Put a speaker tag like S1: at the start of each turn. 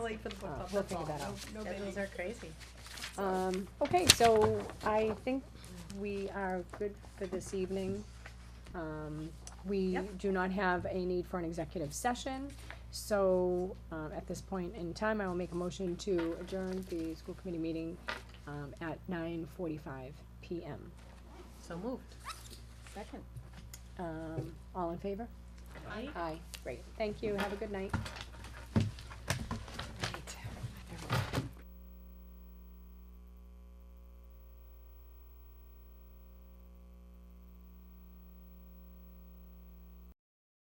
S1: late
S2: Oh,
S1: for the book
S3: Uh,
S1: club,
S3: we'll
S1: that's all,
S3: figure that
S1: no, no
S2: Schedules
S1: biggie.
S2: are crazy.
S3: Um, okay, so I think we are good for this evening. Um, we
S1: Yep.
S3: do not have a need for an executive session, so, um, at this point in time, I will make a motion to adjourn the school committee meeting, um, at nine forty-five PM.
S2: So moved. Second.
S3: Um, all in favor? Aye, great, thank you, have a good night.